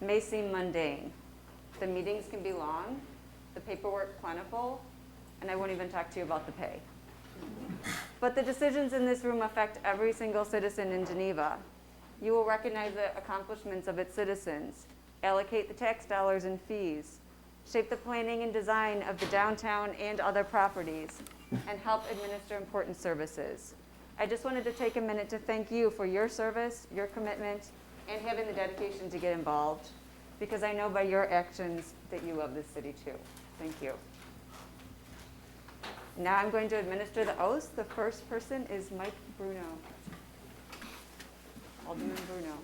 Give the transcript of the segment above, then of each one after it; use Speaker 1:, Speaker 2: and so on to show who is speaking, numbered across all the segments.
Speaker 1: may seem mundane. The meetings can be long, the paperwork plentiful, and I won't even talk to you about the pay. But the decisions in this room affect every single citizen in Geneva. You will recognize the accomplishments of its citizens, allocate the tax dollars and fees, shape the planning and design of the downtown and other properties, and help administer important services. I just wanted to take a minute to thank you for your service, your commitment, and having the dedication to get involved, because I know by your actions that you love this city too. Thank you. Now I'm going to administer the oaths. The first person is Mike Bruno. Alderman Bruno.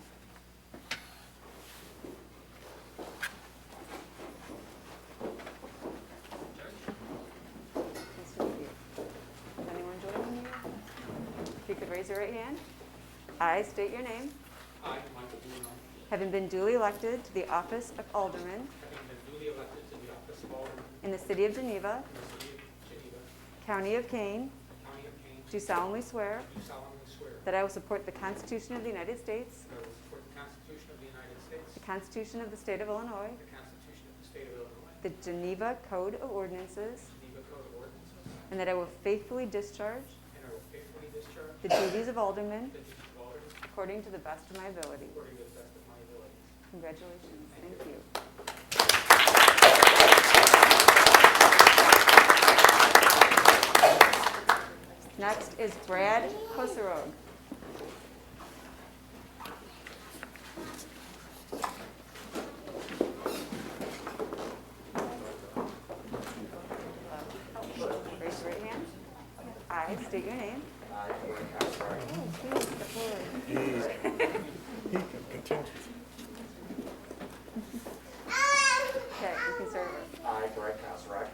Speaker 1: Nice to meet you. Is anyone joining you? If you could raise your right hand. I state your name,
Speaker 2: I, Michael Bruno,
Speaker 1: having been duly elected to the office of Alderman
Speaker 2: having been duly elected to the office of Alderman
Speaker 1: in the city of Geneva,
Speaker 2: in the city of Geneva,
Speaker 1: County of Kane,
Speaker 2: County of Kane,
Speaker 1: do solemnly swear
Speaker 2: do solemnly swear
Speaker 1: that I will support the Constitution of the United States,
Speaker 2: that I will support the Constitution of the United States,
Speaker 1: the Constitution of the State of Illinois,
Speaker 2: the Constitution of the State of Illinois,
Speaker 1: the Geneva Code of Ordinances,
Speaker 2: Geneva Code of Ordinances,
Speaker 1: and that I will faithfully discharge
Speaker 2: and I will faithfully discharge
Speaker 1: the duties of Alderman
Speaker 2: the duties of Alderman
Speaker 1: according to the best of my ability.
Speaker 2: according to the best of my ability.
Speaker 1: Congratulations. Thank you. Next is Brad Kosarog. Raise your right hand. I state your name. Oh, please, the floor. Okay, you can serve us.
Speaker 3: I, Brett Kosrak,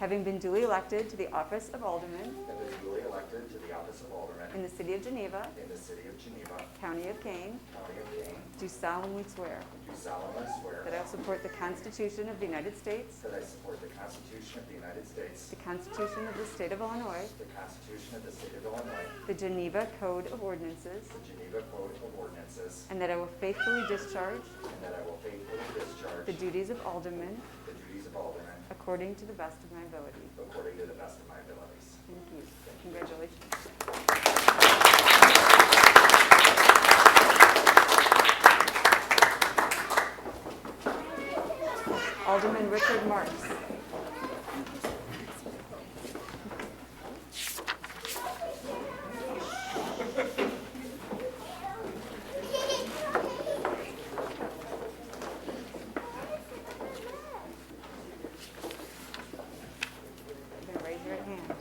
Speaker 1: Having been duly elected to the office of Alderman
Speaker 3: have been duly elected to the office of Alderman
Speaker 1: in the city of Geneva,
Speaker 3: in the city of Geneva,
Speaker 1: County of Kane,
Speaker 3: County of Kane,
Speaker 1: do solemnly swear
Speaker 3: do solemnly swear
Speaker 1: that I will support the Constitution of the United States,
Speaker 3: that I support the Constitution of the United States,
Speaker 1: the Constitution of the State of Illinois,
Speaker 3: the Constitution of the State of Illinois,
Speaker 1: the Geneva Code of Ordinances,
Speaker 3: the Geneva Code of Ordinances,
Speaker 1: and that I will faithfully discharge
Speaker 3: and that I will faithfully discharge
Speaker 1: the duties of Alderman
Speaker 3: the duties of Alderman
Speaker 1: according to the best of my ability.
Speaker 3: according to the best of my abilities.
Speaker 1: Thank you. Congratulations. Alderman Richard Marks. Then raise your right hand.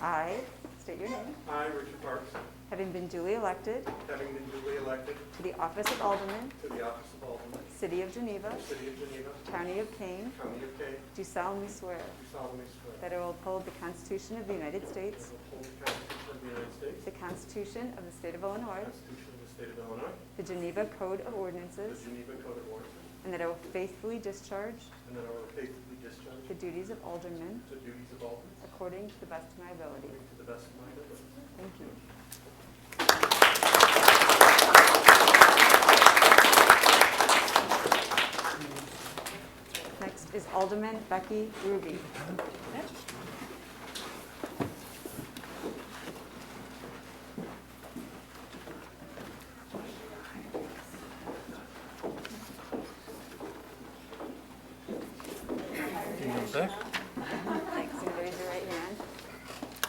Speaker 1: I state your name,
Speaker 4: I, Richard Parks,
Speaker 1: having been duly elected
Speaker 4: having been duly elected
Speaker 1: to the office of Alderman,
Speaker 4: to the office of Alderman,
Speaker 1: City of Geneva,
Speaker 4: City of Geneva,
Speaker 1: County of Kane,
Speaker 4: County of Kane,
Speaker 1: do solemnly swear
Speaker 4: do solemnly swear
Speaker 1: that I will uphold the Constitution of the United
Speaker 4: that I
Speaker 1: States,
Speaker 4: will uphold the Constitution of the United States,
Speaker 1: the Constitution of the State of Illinois,
Speaker 4: the Constitution of the State of Illinois,
Speaker 1: the Geneva Code of
Speaker 4: the
Speaker 1: Ordinances,
Speaker 4: Geneva Code of Ordinances,
Speaker 1: and that I will faithfully discharge
Speaker 4: and that I will faithfully discharge
Speaker 1: the duties of Alderman
Speaker 4: the duties of Alderman
Speaker 1: according to the best of my ability.
Speaker 4: according to the best of my ability.
Speaker 1: Thank you. Next is Alderman Becky Ruby. Thanks, and raise your right hand.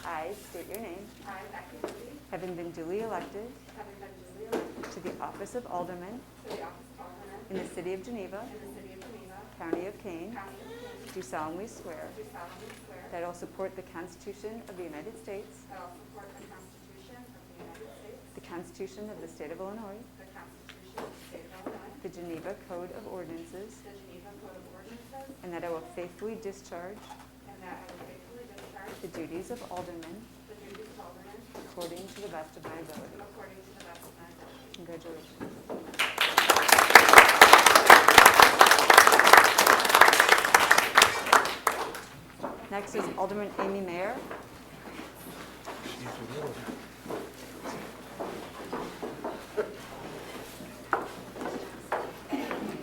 Speaker 1: I state your name,
Speaker 5: I, Becky Ruby,
Speaker 1: having been duly elected
Speaker 5: having been duly elected
Speaker 1: to the office of Alderman
Speaker 5: to the office of Alderman
Speaker 1: in the city of Geneva,
Speaker 5: in the city of Geneva,
Speaker 1: County of Kane,
Speaker 5: county of Kane,
Speaker 1: do
Speaker 5: do solemnly
Speaker 1: solemnly swear
Speaker 5: swear that
Speaker 1: that I will support the Constitution of the United States,
Speaker 5: I will support the Constitution of the United States,
Speaker 1: the Constitution of the State of Illinois,
Speaker 5: the Constitution of the State of Illinois,
Speaker 1: the Geneva Code of Ordinances,
Speaker 5: the Geneva Code of Ordinances,
Speaker 1: and that I will faithfully discharge
Speaker 5: and that I will faithfully discharge
Speaker 1: the duties of Alderman
Speaker 5: the duties of Alderman
Speaker 1: according to the best of my ability.
Speaker 5: according to the best of my ability.
Speaker 1: Congratulations. Next is Alderman Amy Mayer.